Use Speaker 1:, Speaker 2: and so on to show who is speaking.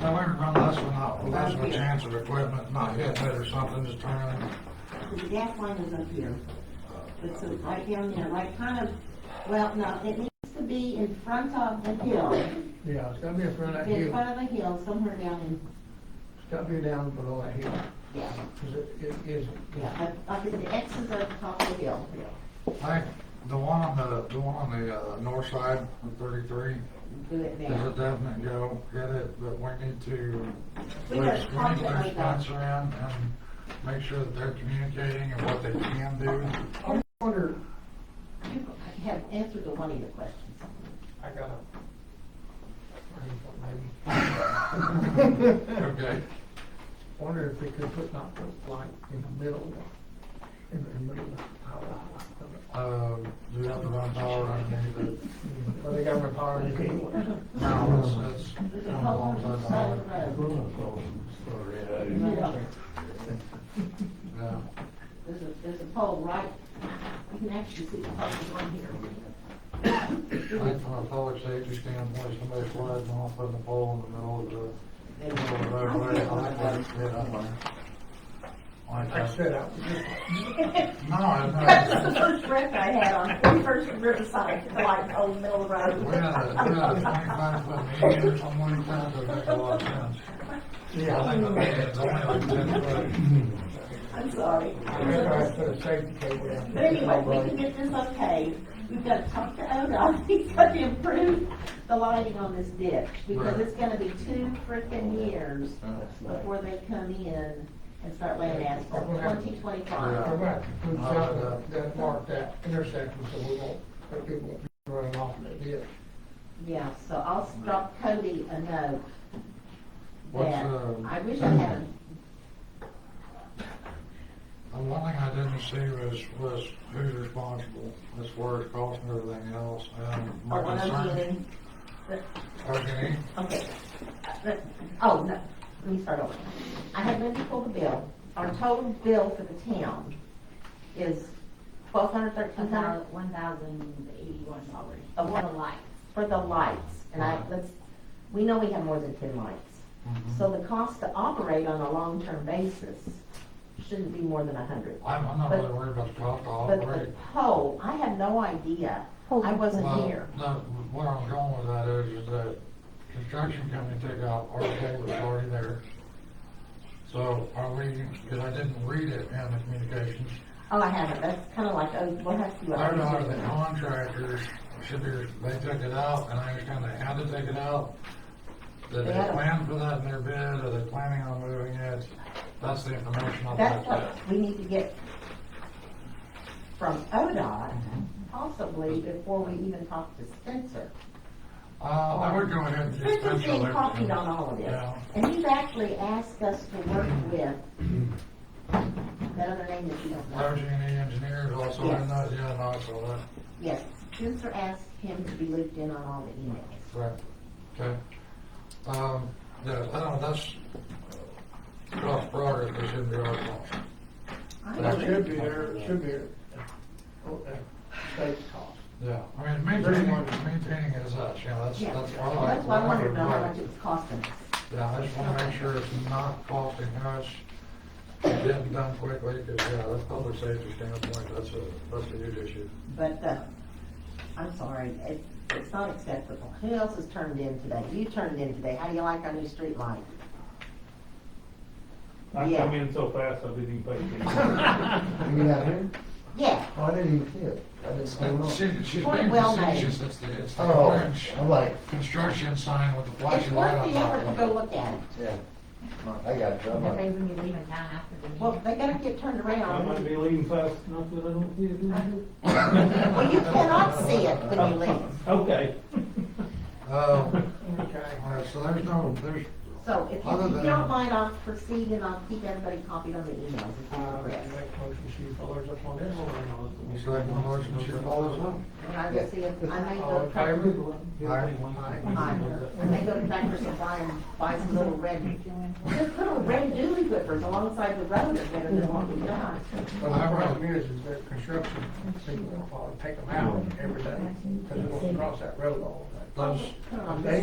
Speaker 1: Now, we're running less than not, less of a chance of equipment not hitting it or something just turning.
Speaker 2: The gas line is up here. It's uh, right down there, right kind of, well, no, it needs to be in front of the hill.
Speaker 3: Yeah, it's gotta be in front of that
Speaker 2: In
Speaker 3: hill.
Speaker 2: front of the hill, somewhere down in,
Speaker 3: It's gotta be down below that hill.
Speaker 2: yeah,
Speaker 3: 'Cause it, it is,
Speaker 2: yeah, up, up in the X's at the top of the hill.
Speaker 1: Like, the one on the, the one on the, uh, north side of thirty-three,
Speaker 2: Do it
Speaker 1: is a
Speaker 2: there.
Speaker 1: definite go, get it, but we need to,
Speaker 2: We
Speaker 1: we need
Speaker 2: got
Speaker 1: to
Speaker 2: a project
Speaker 1: their
Speaker 2: we got.
Speaker 1: sponsor in and make sure that they're communicating and what they can do.
Speaker 3: I wonder,
Speaker 2: You have answered the one of your questions.
Speaker 1: I got it.
Speaker 3: maybe,
Speaker 1: Okay.
Speaker 3: wonder if they could put not put light in the middle, in the middle of the power.
Speaker 1: Uh, do we have to run power underneath it?
Speaker 3: Well, they got my power in anyway.
Speaker 1: No, it's, it's.
Speaker 2: The whole side of the road. Yeah.
Speaker 1: Yeah.
Speaker 2: There's a, there's a pole right, you can actually see the pole on here.
Speaker 1: Like from a public safety standpoint, somebody flies off on the pole in the middle of the, middle of the roadway, I like that, it's hit up on. Like
Speaker 3: I
Speaker 1: that.
Speaker 3: said, I,
Speaker 1: No,
Speaker 2: That
Speaker 1: I
Speaker 2: was the first rep I had on, the first Riverside, like, old middle of the
Speaker 1: know. We had a, we had a twenty-five foot median or something like that, that makes a lot of sense.
Speaker 3: yeah,
Speaker 1: I
Speaker 3: I
Speaker 1: think the
Speaker 3: know.
Speaker 1: median's only like ten
Speaker 2: I'm sorry.
Speaker 3: I remember I put a safety cable down.
Speaker 2: But anyway, we can get this okay. We've got to talk to ODOT, he's got to improve the lighting on this ditch, because
Speaker 1: Right.
Speaker 2: it's gonna be two frickin' years
Speaker 1: foot.
Speaker 2: before they come in and start laying asphalt,
Speaker 3: Okay.
Speaker 2: twenty
Speaker 3: All
Speaker 2: twenty-five.
Speaker 3: right, we found that, that mark, that intersection, so we won't, that people won't be running off of it, yeah.
Speaker 2: Yeah, so I'll drop Cody a note.
Speaker 1: What's,
Speaker 2: that-
Speaker 1: uh,
Speaker 2: I wish I had,
Speaker 1: The one thing I didn't see was, was who's responsible, as far as cost and everything else, and
Speaker 2: oh,
Speaker 1: my
Speaker 2: what I'm
Speaker 1: concern.
Speaker 2: doing.
Speaker 1: Okay,
Speaker 2: Okay. Uh, Oh, no, let me start over. I had Lindy pull the bill. Our total bill for the town is twelve hundred thirteen dollars
Speaker 4: One thousand eighty-one dollars.
Speaker 2: Oh, what a light. for the lights. And I, let's, we know we have more than ten lights. So the cost to operate on a long-term basis shouldn't be more than a hundred.
Speaker 1: I'm, I'm not
Speaker 2: But-
Speaker 1: really worried about the cost, I'll
Speaker 2: But the pole, I have no idea. I wasn't
Speaker 1: Well,
Speaker 2: here.
Speaker 1: No, where I'm going with that is, is that construction company took out our pole that's already there. So are we, because I didn't read it in the communications,
Speaker 2: Oh, I haven't. That's kind of like, oh, we'll have to.
Speaker 1: I don't know if the contractors should be, they took it out, and I understand they had to take it out. Did they
Speaker 2: Yeah.
Speaker 1: plan for that in their bid, are they planning on moving it? That's the information I'd like
Speaker 2: That's
Speaker 1: to
Speaker 2: what
Speaker 1: have.
Speaker 2: we need to get from ODOT, possibly before we even talk to Spencer.
Speaker 1: Uh, I would go ahead and just.
Speaker 2: Spencer's
Speaker 1: pencil
Speaker 2: being
Speaker 1: it.
Speaker 2: copied on all of this,
Speaker 1: Yeah.
Speaker 2: and he's actually asked us to work with that other name that you don't know.
Speaker 1: Leveraging any engineers also, in that, yeah, and also
Speaker 2: Yes, Spencer asked him to be looped in on all the emails.
Speaker 1: that, right, okay. Um, yeah, I don't, know, that's, uh, cross progress, that shouldn't be our fault.
Speaker 2: I
Speaker 3: That
Speaker 2: don't
Speaker 3: should be there, it should be, there. oh, that
Speaker 5: uh,
Speaker 3: state cost.
Speaker 1: Yeah, I mean, maintaining, maintaining is us, you know, that's,
Speaker 2: Yeah,
Speaker 1: that's. our
Speaker 2: that's why I wanted to know how
Speaker 1: right.
Speaker 2: much it was costing us.
Speaker 1: Yeah, I just want to make sure it's not costing us, getting done quickly, because, yeah, that's public safety standpoint, that's a, that's a huge issue.
Speaker 2: But, uh, I'm sorry, it, it's not acceptable. Who else has turned in today? You turned in today. How do you like our new street light?
Speaker 6: I
Speaker 2: Yeah.
Speaker 6: come in so fast, I didn't even pay attention.
Speaker 5: You got here?
Speaker 2: Yeah,
Speaker 5: Oh, I didn't even see it. I didn't see it.
Speaker 1: She, she's
Speaker 2: Point
Speaker 1: making
Speaker 2: well made.
Speaker 1: decisions, it's the, it's the
Speaker 5: Oh,
Speaker 1: orange
Speaker 5: I'm like,
Speaker 1: construction sign with the
Speaker 2: it's
Speaker 1: flashing light
Speaker 2: worth
Speaker 1: on
Speaker 2: the effort to
Speaker 1: top
Speaker 2: go
Speaker 1: of it.
Speaker 2: look at it.
Speaker 5: yeah, I got it. I'm
Speaker 4: That
Speaker 5: like,
Speaker 4: way when you leave in town after the meeting.
Speaker 2: Well, they gotta get turned
Speaker 6: I might
Speaker 2: around.
Speaker 6: be leaving fast enough that I don't see it. do I?
Speaker 2: Well, you cannot see it when you leave.
Speaker 6: Okay.
Speaker 1: Um,
Speaker 3: Okay.
Speaker 1: all right, so there's no, there's,
Speaker 2: So if
Speaker 1: Other
Speaker 2: you- if
Speaker 1: than-
Speaker 2: you don't mind, I'll proceed and I'll keep everybody copied on the emails. if you
Speaker 3: Uh,
Speaker 2: progress.
Speaker 3: make motion, she follows up on this one.
Speaker 1: it's like one motion, she follows up.
Speaker 2: And I will see if, I may
Speaker 3: All
Speaker 2: go,
Speaker 3: in favor?
Speaker 2: Aye. I may go to Tractor Supply and buy some little red, just little red doobie whippers alongside the road, if they're the one we got.
Speaker 3: Well, the problem is, is that construction,
Speaker 1: uh,
Speaker 3: people will probably take them out every day, because they won't cross that road all the time.
Speaker 1: Those,
Speaker 2: Put it on
Speaker 3: They
Speaker 2: this